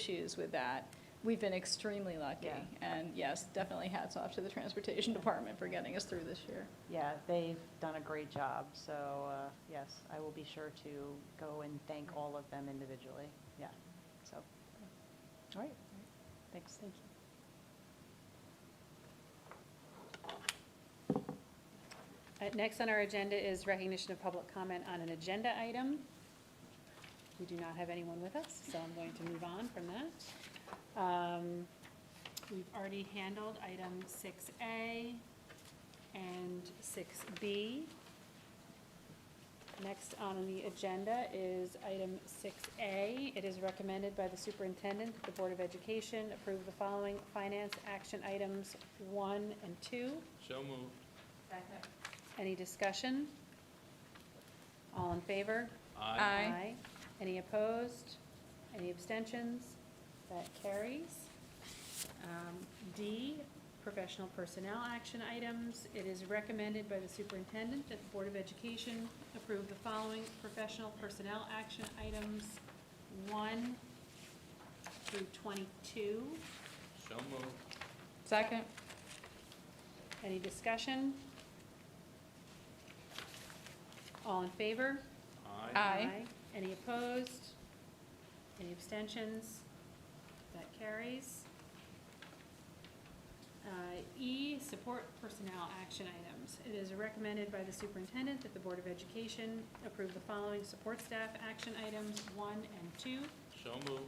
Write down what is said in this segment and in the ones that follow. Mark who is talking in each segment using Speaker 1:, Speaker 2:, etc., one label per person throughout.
Speaker 1: issues with that. We've been extremely lucky.
Speaker 2: Yeah.
Speaker 1: And yes, definitely hats off to the Transportation Department for getting us through this year.
Speaker 2: Yeah, they've done a great job, so, uh, yes, I will be sure to go and thank all of them individually, yeah, so. All right, thanks. Thank you.
Speaker 3: Uh, Next on our agenda is recognition of public comment on an agenda item. We do not have anyone with us, so I'm going to move on from that. Um, We've already handled item six A and six B. Next on the agenda is item six A. It is recommended by the superintendent that the Board of Education approve the following finance action items one and two.
Speaker 4: So moved.
Speaker 3: Any discussion? All in favor?
Speaker 1: Aye.
Speaker 3: Any opposed? Any abstentions? That carries. Um, D, professional personnel action items. It is recommended by the superintendent that the Board of Education approve the following professional personnel action items, one through twenty-two.
Speaker 4: So moved.
Speaker 1: Second?
Speaker 3: Any discussion? All in favor?
Speaker 1: Aye.
Speaker 3: Any opposed? Any abstentions? That carries. Uh, E, support personnel action items. It is recommended by the superintendent that the Board of Education approve the following support staff action items one and two.
Speaker 4: So moved.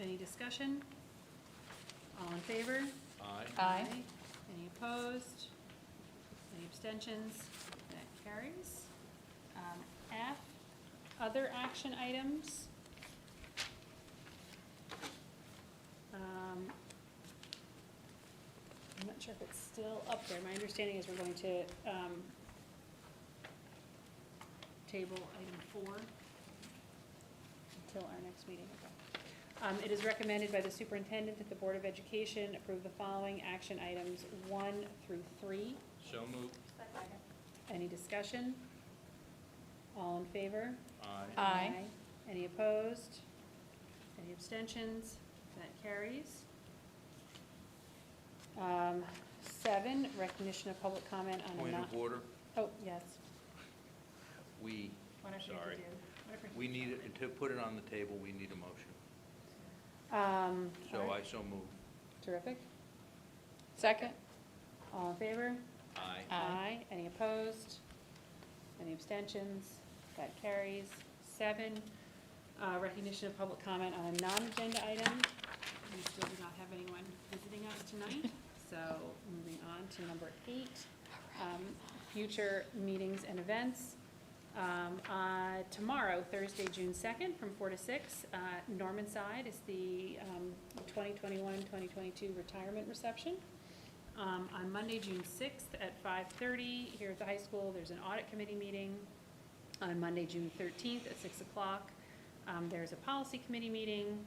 Speaker 3: Any discussion? All in favor?
Speaker 4: Aye.
Speaker 1: Aye.
Speaker 3: Any opposed? Any abstentions? That carries. Um, F, other action items. Um, I'm not sure if it's still up there. My understanding is we're going to um, table item four until our next meeting. Okay. Um, It is recommended by the superintendent that the Board of Education approve the following action items one through three.
Speaker 4: So moved.
Speaker 3: Any discussion? All in favor?
Speaker 4: Aye.
Speaker 1: Aye.
Speaker 3: Any opposed? Any abstentions? That carries. Um, Seven, recognition of public comment on a
Speaker 4: Point
Speaker 3: non.
Speaker 4: of order,
Speaker 3: Oh, yes.
Speaker 4: we,
Speaker 3: Whatever you
Speaker 4: Sorry.
Speaker 3: do. Whatever you-
Speaker 4: we need, to put it on the table, we need a motion.
Speaker 3: Um, all
Speaker 4: So I
Speaker 3: right.
Speaker 4: so move.
Speaker 3: Terrific.
Speaker 1: Second?
Speaker 3: All in favor?
Speaker 4: Aye.
Speaker 1: Aye.
Speaker 3: Any opposed? Any abstentions? That carries. Seven, uh, recognition of public comment on a non-agenda item. We still do not have anyone visiting us tonight, so moving on to number eight, um, future meetings and events. Um, uh, Tomorrow, Thursday, June 2nd, from four to six, uh, Norman Side is the um, 2021-2022 retirement reception. Um, on Monday, June sixth at five thirty, here at the high school, there's an audit committee meeting. On Monday, June thirteenth at six o'clock, um, there's a policy committee meeting.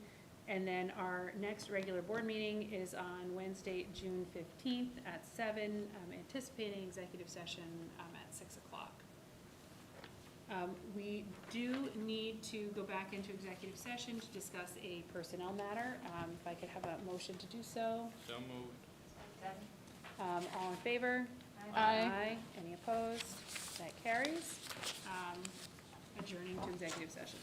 Speaker 3: And then our next regular board meeting is on Wednesday, June fifteenth at seven, um, anticipating executive session, um, at six o'clock. Um, we do need to go back into executive session to discuss a personnel matter. Um, if I could have a motion to do so.
Speaker 4: So moved.
Speaker 3: Um, all in favor?
Speaker 1: Aye. Aye.
Speaker 3: Any opposed? That carries. Um, adjourning to executive session.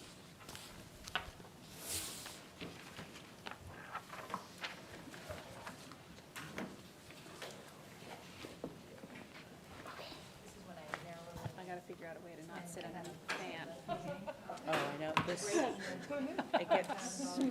Speaker 3: I gotta figure out a way to not sit in that fan.
Speaker 2: Oh, I know, this, it gets